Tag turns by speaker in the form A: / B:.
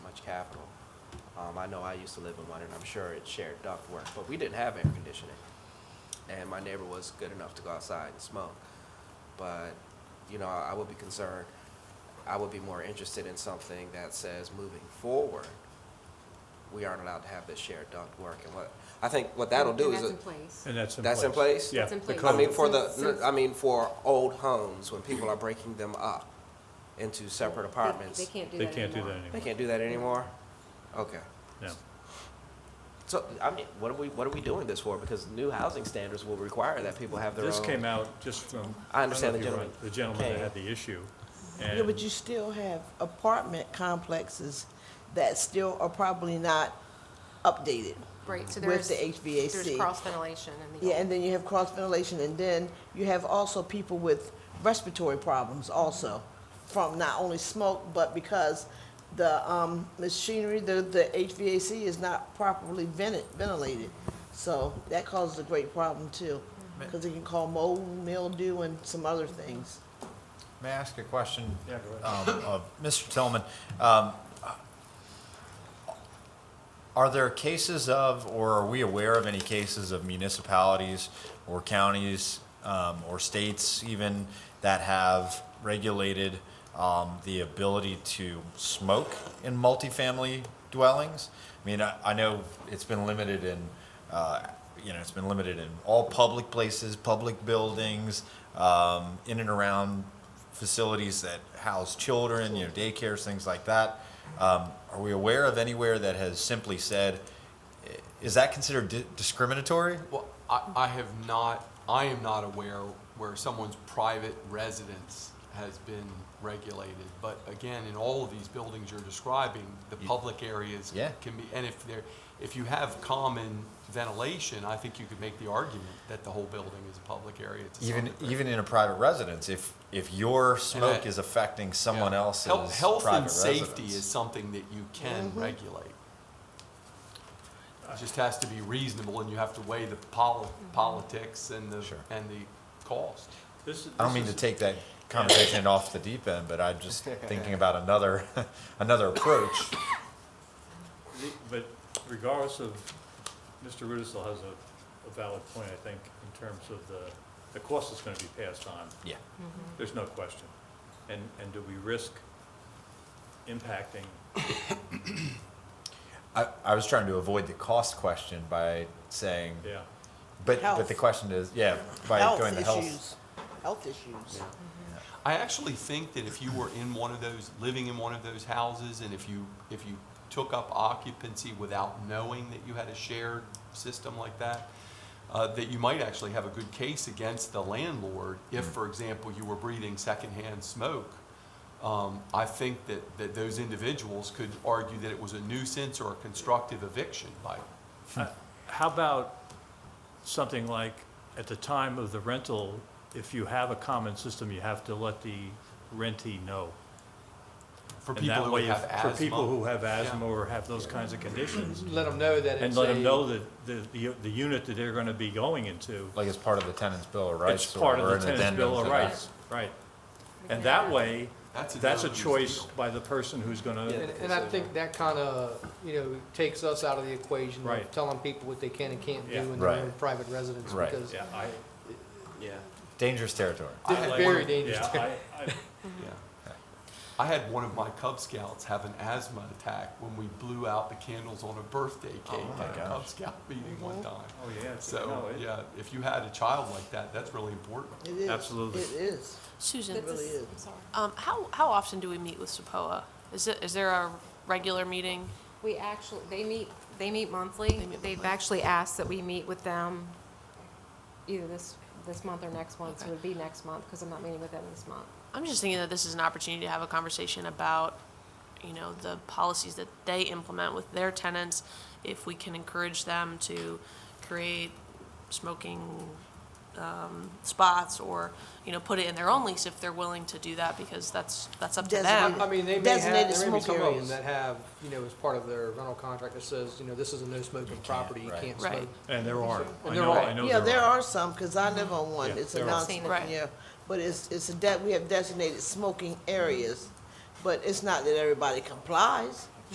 A: Capitol. Um, I know I used to live in one, and I'm sure it shared ductwork, but we didn't have air conditioning. And my neighbor was good enough to go outside and smoke. But, you know, I would be concerned, I would be more interested in something that says, moving forward, we aren't allowed to have this shared ductwork. And what, I think what that'll do
B: And
A: is.
B: that's in
A: it-
B: place.
C: And that's in place.
A: That's in place?
C: Yeah.
B: That's in
C: the
B: place.
A: I
C: code.
A: mean, for
B: Since-
A: the, I mean, for old homes, when people are breaking them up into separate
B: They-
A: apartments.
B: They can't do
C: They
B: that
C: can't do that
B: anymore.
C: anymore.
A: They can't do that anymore? Okay.
C: No.
A: So, I mean, what are we, what are we doing this for? Because new housing standards will require that people have their own.
C: This came out just from.
A: I understand
C: don't know
A: the
C: if
A: gentleman.
C: you're right, The gentleman that
A: Okay.
C: had the issue.
D: Yeah, but
C: and-
D: you still have apartment complexes that still are probably not updated.
B: Right, so
D: With
B: there's.
D: the
B: There's
D: HVAC.
B: cross ventilation in the.
D: Yeah, and then you have cross ventilation, and then you have also people with respiratory problems also from not only smoke, but because the um, machinery, the, the HVAC is not properly vented, ventilated. So that causes a great problem too, because it can cause mold, mildew, and some other things.
E: May I ask a question?
C: Yeah, go ahead.
E: um, Of Mr. Tillman, um, are there cases of, or are we aware of any cases of municipalities or counties um, or states even that have regulated um, the ability to smoke in multifamily dwellings? I mean, I, I know it's been limited in, uh, you know, it's been limited in all public places, public buildings, um, in and around facilities that house children, you know, daycares, things like that. Um, are we aware of anywhere that has simply said, i- is that considered di- discriminatory?
F: Well, I, I have not, I am not aware where someone's private residence has been regulated. But again, in all of these buildings you're describing, the public areas
E: Yeah.
F: can be, and if there, if you have common ventilation, I think you could make the argument that the whole building is a public area. to some
E: Even
F: degree.
E: even in a private residence, if if your smoke
F: I-
E: is affecting someone
F: Yeah.
E: else's
F: Health- Health
E: private
F: and safety
E: residence.
F: is something that you can regulate. It just has to be reasonable, and you have to weigh the poli- politics and the,
E: Sure.
F: and the cost.
C: This is-
E: I don't
C: this
E: mean to
C: is-
E: take that conversation off the deep end, but I'm just thinking about another another approach.
C: the- But regardless of, Mr. Rudisil has a, a valid point, I think, in terms of the, the cost that's gonna be passed on.
E: Yeah.
C: There's no question. And, and do we risk impacting,
E: I, I was trying to avoid the cost question by saying,
C: yeah.
E: but but
D: Health.
E: the question is, yeah, by going
D: Health
E: to health.
D: issues, health issues.
F: I actually think that if you were in one of those, living in one of those houses, and if you, if you took up occupancy without knowing that you had a shared system like that, uh, that you might actually have a good case against the landlord if,
C: Mm.
F: for example, you were breathing secondhand smoke. Um, I think that, that those individuals could argue that it was a nuisance or a constructive eviction by,
C: How about something like, at the time of the rental, if you have a common system, you have to let the rentee know.
F: for
C: And
F: people
C: that
F: who
C: way,
F: have
C: if-
F: asthma.
C: for people who have asthma
F: Yeah.
C: or have those kinds of conditions,
G: Let them know that it's a.
C: and let them know that the, the, the unit that they're gonna be going into,
E: Like it's part of the tenant's bill of rights.
C: it's
E: or-
C: part of
E: or
C: the
E: an
C: tenant's
E: addendum
C: bill
E: to
C: of
E: that.
C: rights, right? And that way,
F: That's a
C: that's a
F: no-lose
C: choice
F: deal.
C: by the person who's
A: Yeah.
C: gonna,
G: And, and I think that kind of, you know, takes us out of the equation
C: Right.
G: of telling people what they can and can't do
C: Yeah.
G: in their own
E: Right.
G: private residence.
E: Right.
G: Because
C: yeah, I.
A: Yeah.
E: Dangerous territory.
F: I
G: this is
F: like-
G: very dangerous.
C: Yeah, I, I,
F: Yeah. I had one of my Cub Scouts have an asthma attack when we blew out the candles on a birthday cake
E: my
F: at a Cub Scout meeting one time.
C: oh, yeah, no,
F: So,
C: it-
F: yeah, if you had a child like that, that's really important.
D: It is.
C: Absolutely.
D: It is.
H: Susan,
D: It really is.
H: um, how, how often do we meet with SEPOA? Is it, is there a regular meeting?
B: We actually, they meet, they meet monthly. They've actually asked that we meet with them either this, this month or next month. So it
H: Okay.
B: would be next month because I'm not meeting with them this month.
H: I'm just thinking that this is an opportunity to have a conversation about, you know, the policies that they implement with their tenants. If we can encourage them to create smoking, um, spots or, you know, put it in their own lease if they're willing to do that because that's, that's up to them.
D: Designated.
G: I mean, they may
D: Um,
G: have,
D: Designated
G: there may be
D: smoke
G: some of them
D: areas.
G: that have, you know, as part of their rental contract that says, you know, this is a no smoking property, you
E: right.
G: can't
H: Right.
G: smoke.
C: and there are, I
G: And there
C: know,
G: are.
C: I know
D: Yeah, there
C: are.
D: are some, because I live on one.
C: Yeah,
D: It's a
C: there are.
D: non
B: Seen it.
H: Right.
D: yeah. But it's, it's a, de- we have designated smoking areas, but it's not that everybody complies.